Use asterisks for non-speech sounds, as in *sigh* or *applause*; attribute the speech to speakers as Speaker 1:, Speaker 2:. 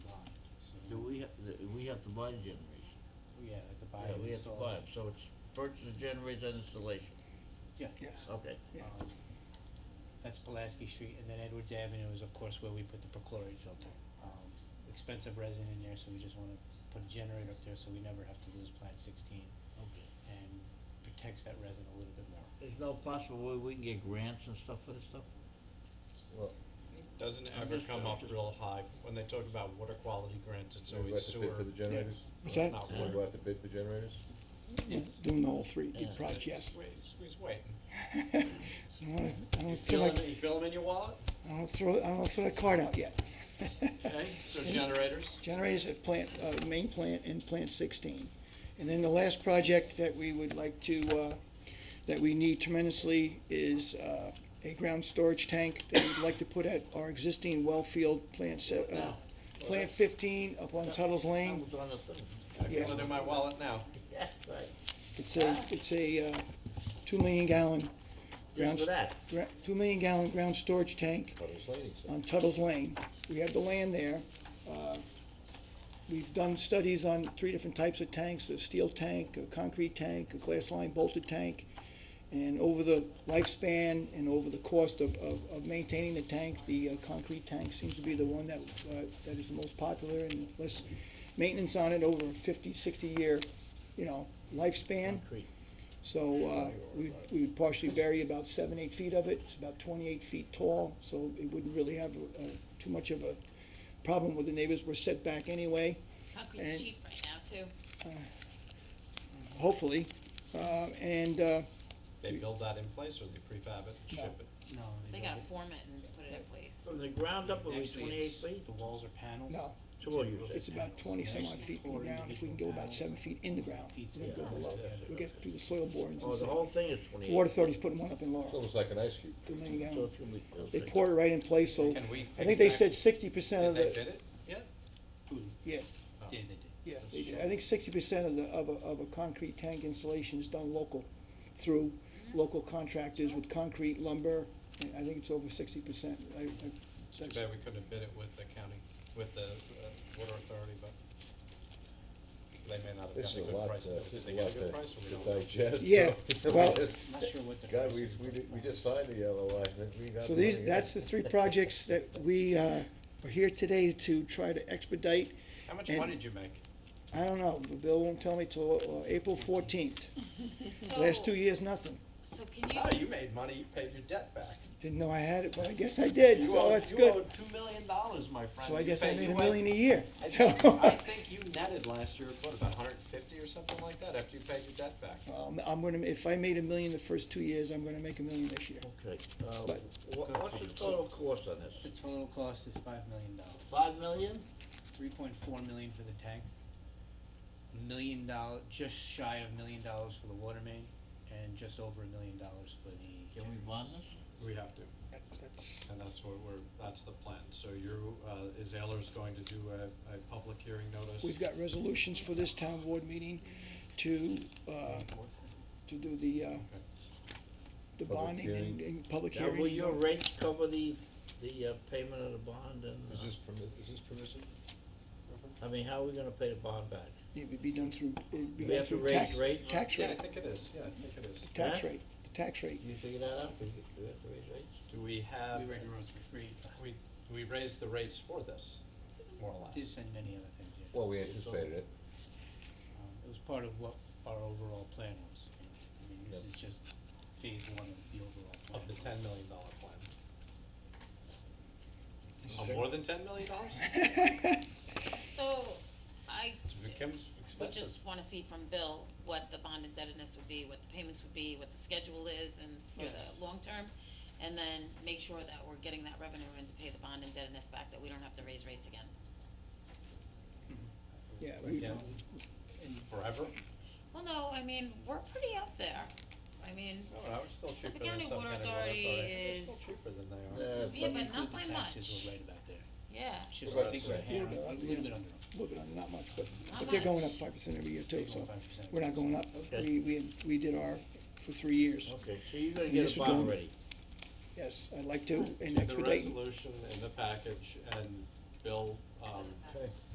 Speaker 1: have to buy the generation.
Speaker 2: Oh, Yeah, like the buy
Speaker 1: Yeah,
Speaker 2: and
Speaker 1: we have to
Speaker 2: install.
Speaker 1: buy it, so it's purchase the generator and installation,
Speaker 2: Yeah.
Speaker 3: Yes.
Speaker 1: okay.
Speaker 3: Yeah.
Speaker 2: Um, That's Pulaski Street, and then Edwards Avenue is of course where we put the perchlorate filter. Um, expensive resin in there, so we just wanna put a generator up there so we never have to lose plant sixteen
Speaker 1: Okay.
Speaker 2: and protects that resin a little bit more.
Speaker 1: There's no possible way we can get grants and stuff for this stuff?
Speaker 4: Well,
Speaker 5: Doesn't
Speaker 1: I'm
Speaker 5: ever
Speaker 1: just-
Speaker 5: come
Speaker 1: I'm
Speaker 5: up
Speaker 1: just-
Speaker 5: real high, when they talk about water quality grants, it's
Speaker 4: we
Speaker 5: always
Speaker 4: have to
Speaker 5: sewer.
Speaker 4: bid for the generators?
Speaker 3: What's that?
Speaker 5: Not
Speaker 4: We
Speaker 5: water.
Speaker 4: go out to bid for generators?
Speaker 3: Doing the whole three,
Speaker 1: Yeah.
Speaker 3: big projects.
Speaker 5: Just wait, He's waiting.
Speaker 3: *laughs* I don't wanna- I
Speaker 5: You
Speaker 3: don't feel
Speaker 5: feel
Speaker 3: like,
Speaker 5: it, you feel 'em in your wallet?
Speaker 3: I don't throw, I don't throw the card out yet.
Speaker 5: Okay,
Speaker 3: *laughs*
Speaker 5: so generators,
Speaker 3: Generators at plant, uh, main plant and plant sixteen. And then the last project that we would like to, uh, that we need tremendously is, uh, a ground storage tank that we'd like to put at our existing well field plant se- uh, plant fifteen up on Tuttle's
Speaker 1: That
Speaker 3: Lane.
Speaker 1: was on the thing.
Speaker 5: I feel
Speaker 3: Yeah.
Speaker 5: it in my wallet now.
Speaker 1: *laughs* Yeah, right.
Speaker 3: It's a, it's a, uh, two million gallon ground,
Speaker 1: Just for that.
Speaker 3: gra- two million gallon ground storage tank.
Speaker 4: What is lady said?
Speaker 3: on Tuttle's Lane. We have the land there. Uh, We've done studies on three different types of tanks, a steel tank, a concrete tank, a glass line bolted tank. And over the lifespan and over the cost of, of, of maintaining the tank, the uh, concrete tank seems to be the one that, uh, that is the most popular and less maintenance on it over a 50, 60 year, you know, lifespan.
Speaker 1: Concrete.
Speaker 3: So uh, we we would partially bury about seven, eight feet of it. It's about 28 feet tall, so it wouldn't really have uh, too much of a problem with the neighbors. We're set back anyway, And-
Speaker 6: Concrete's cheap right now too.
Speaker 3: hopefully. Uh, And uh,
Speaker 5: They build that in place or they prefab it and ship
Speaker 3: No.
Speaker 5: it?
Speaker 2: No,
Speaker 6: They
Speaker 2: don't
Speaker 6: gotta
Speaker 2: get-
Speaker 6: form it and put it in place.
Speaker 1: From the ground up, are we
Speaker 5: Actually,
Speaker 1: twenty-eight
Speaker 5: it's-
Speaker 1: feet?
Speaker 2: The walls are panels.
Speaker 3: no,
Speaker 1: So what do you say?
Speaker 3: it's about 20-some odd feet in the ground. If we can go about seven feet in the ground,
Speaker 2: Pizza.
Speaker 3: we'll go below. We'll get through the soil borings and
Speaker 1: Oh, the
Speaker 3: stuff.
Speaker 1: whole thing is
Speaker 3: The
Speaker 1: twenty-eight?
Speaker 3: Water Authority's putting one up in
Speaker 4: It's
Speaker 3: Laurel,
Speaker 4: almost like an ice cube.
Speaker 3: two million
Speaker 1: So
Speaker 3: gallon.
Speaker 1: it's gonna be
Speaker 3: They
Speaker 1: perfect.
Speaker 3: pour it right in place, so
Speaker 5: Can we
Speaker 3: I think they
Speaker 5: piggyback-
Speaker 3: said 60%
Speaker 5: Did
Speaker 3: of
Speaker 5: they
Speaker 3: the,
Speaker 5: bid it? Yeah,
Speaker 2: Ooh,
Speaker 3: yeah,
Speaker 2: Yeah, they did.
Speaker 3: Yeah, they do. I think sixty percent of the, of a, of a concrete tank installation is done local, through local contractors with concrete, lumber, and I think it's over sixty percent. I, I,
Speaker 5: too
Speaker 3: that's,
Speaker 5: bad we couldn't have bid it with the county, with the uh, water authority, but they may not have
Speaker 4: This is
Speaker 5: gotten a
Speaker 4: a
Speaker 5: good
Speaker 4: lot, uh,
Speaker 5: price.
Speaker 4: this is
Speaker 5: They
Speaker 4: a
Speaker 5: got
Speaker 4: lot
Speaker 5: a good price
Speaker 4: to
Speaker 5: or we
Speaker 4: to
Speaker 5: don't know.
Speaker 4: digest. *laughs*
Speaker 5: *laughs*
Speaker 3: Yeah, well-
Speaker 2: I'm not sure what the.
Speaker 4: God,
Speaker 2: price
Speaker 4: we,
Speaker 2: is,
Speaker 4: we,
Speaker 2: but,
Speaker 4: did- we
Speaker 2: uh,
Speaker 4: just signed the LOI, but we got.
Speaker 3: so these,
Speaker 4: money.
Speaker 3: that's the three projects that we, uh, are here today to try to expedite.
Speaker 5: How much
Speaker 3: and-
Speaker 5: money did you make?
Speaker 3: I don't know, Bill won't tell me till, uh, April fourteenth. Last two
Speaker 6: So-
Speaker 3: years, nothing.
Speaker 6: So can
Speaker 5: Oh,
Speaker 6: you,
Speaker 5: you made money, you paid your debt back.
Speaker 3: Didn't know I had it, but I guess I did,
Speaker 5: You
Speaker 3: so
Speaker 5: owe,
Speaker 3: it's
Speaker 5: you
Speaker 3: good.
Speaker 5: owe two million dollars, my friend.
Speaker 3: So I
Speaker 5: You
Speaker 3: guess I
Speaker 5: paid-
Speaker 3: made
Speaker 5: you
Speaker 3: a
Speaker 5: went-
Speaker 3: million
Speaker 4: e-
Speaker 3: a year.
Speaker 5: I
Speaker 3: So-
Speaker 4: *laughs*
Speaker 5: think, I think you netted last year, what, about hundred and fifty or something like that, after you paid your debt back?
Speaker 3: Um, I'm gonna, if I made a million the first two years, I'm gonna make a million this year.
Speaker 1: Okay, uh,
Speaker 3: But-
Speaker 1: wha- what's the total cost on this?
Speaker 2: The total cost is five million dollars,
Speaker 1: Five million?
Speaker 2: three point four million for the tank. Million dollar, just shy of million dollars for the water main, and just over a million dollars for the.
Speaker 1: Can we bond this?
Speaker 5: We have to. And that's what we're, that's the plan. So you, uh, is Ayler's going to do a, a public hearing notice?
Speaker 3: We've got resolutions for this town board meeting to, uh, to do the, uh, the
Speaker 4: Public
Speaker 3: bonding and, and public
Speaker 1: Now,
Speaker 3: hearing.
Speaker 1: will your rates cover the, the uh, payment of the bond and,
Speaker 4: Is this
Speaker 1: uh,
Speaker 4: permit, is this permissible?
Speaker 1: I mean, how are we gonna pay the bond back?
Speaker 3: It would be done through, it'd be
Speaker 1: We
Speaker 3: done
Speaker 1: have to
Speaker 3: through
Speaker 1: raise
Speaker 3: tax,
Speaker 1: rate?
Speaker 3: tax
Speaker 5: Yeah, I
Speaker 3: rate,
Speaker 5: think it is, yeah, I think it is.
Speaker 3: tax
Speaker 1: Huh?
Speaker 3: rate, the tax rate.
Speaker 1: Can
Speaker 3: *laughs*
Speaker 1: you figure that out? Do we have to raise rates?
Speaker 5: Do we have?
Speaker 2: We already wrote through, we
Speaker 5: We, we raised the rates for this, more or
Speaker 2: this
Speaker 5: less.
Speaker 2: and many other things, yeah.
Speaker 4: Well, we anticipated it.
Speaker 2: Um, It was part of what our overall plan was. I mean, this
Speaker 4: Yep.
Speaker 2: is just phase one of the overall plan.
Speaker 5: Of the ten million dollar plan. Of more than ten million dollars?
Speaker 6: so I
Speaker 5: It becomes
Speaker 6: would
Speaker 5: expensive.
Speaker 6: just wanna see from Bill what the bond indebtedness would be, what the payments would be, what the schedule is and for
Speaker 2: Yes.
Speaker 6: the long term. And then make sure that we're getting that revenue in to pay the bond indebtedness back, that we don't have to raise rates again.
Speaker 3: Yeah,
Speaker 5: Right
Speaker 3: we-
Speaker 5: down Forever?
Speaker 6: Well, no, I mean, we're pretty up there. I mean,
Speaker 5: No, no, it's still cheaper
Speaker 6: Suffolk
Speaker 5: than
Speaker 6: County
Speaker 5: some
Speaker 6: Water
Speaker 5: kind of
Speaker 6: Authority
Speaker 5: It's
Speaker 6: is-
Speaker 5: still cheaper than they are.
Speaker 1: Yeah,
Speaker 2: If
Speaker 6: Yeah,
Speaker 2: we
Speaker 6: but
Speaker 2: include
Speaker 6: not
Speaker 2: the
Speaker 6: by
Speaker 2: Taxes
Speaker 6: much.
Speaker 2: were right about there.
Speaker 6: yeah,
Speaker 2: Just,
Speaker 1: Right,
Speaker 2: I think
Speaker 1: right.
Speaker 2: we're a hair,
Speaker 3: Yeah.
Speaker 2: a little bit under.
Speaker 3: a little bit under, not much, but,
Speaker 6: Not
Speaker 3: but they're going up
Speaker 6: much.
Speaker 3: five percent every year too, so
Speaker 2: 3.5%.
Speaker 3: we're not going up.
Speaker 1: Okay.
Speaker 3: We, we, we did our, for three years.
Speaker 1: Okay, so you're gonna
Speaker 3: And
Speaker 1: get
Speaker 3: this
Speaker 1: a
Speaker 3: would
Speaker 1: bond
Speaker 3: go-
Speaker 1: ready?
Speaker 3: Yes, I'd like to, and
Speaker 5: Do the
Speaker 3: expedite.
Speaker 5: resolution in the package and Bill, um,
Speaker 4: Okay.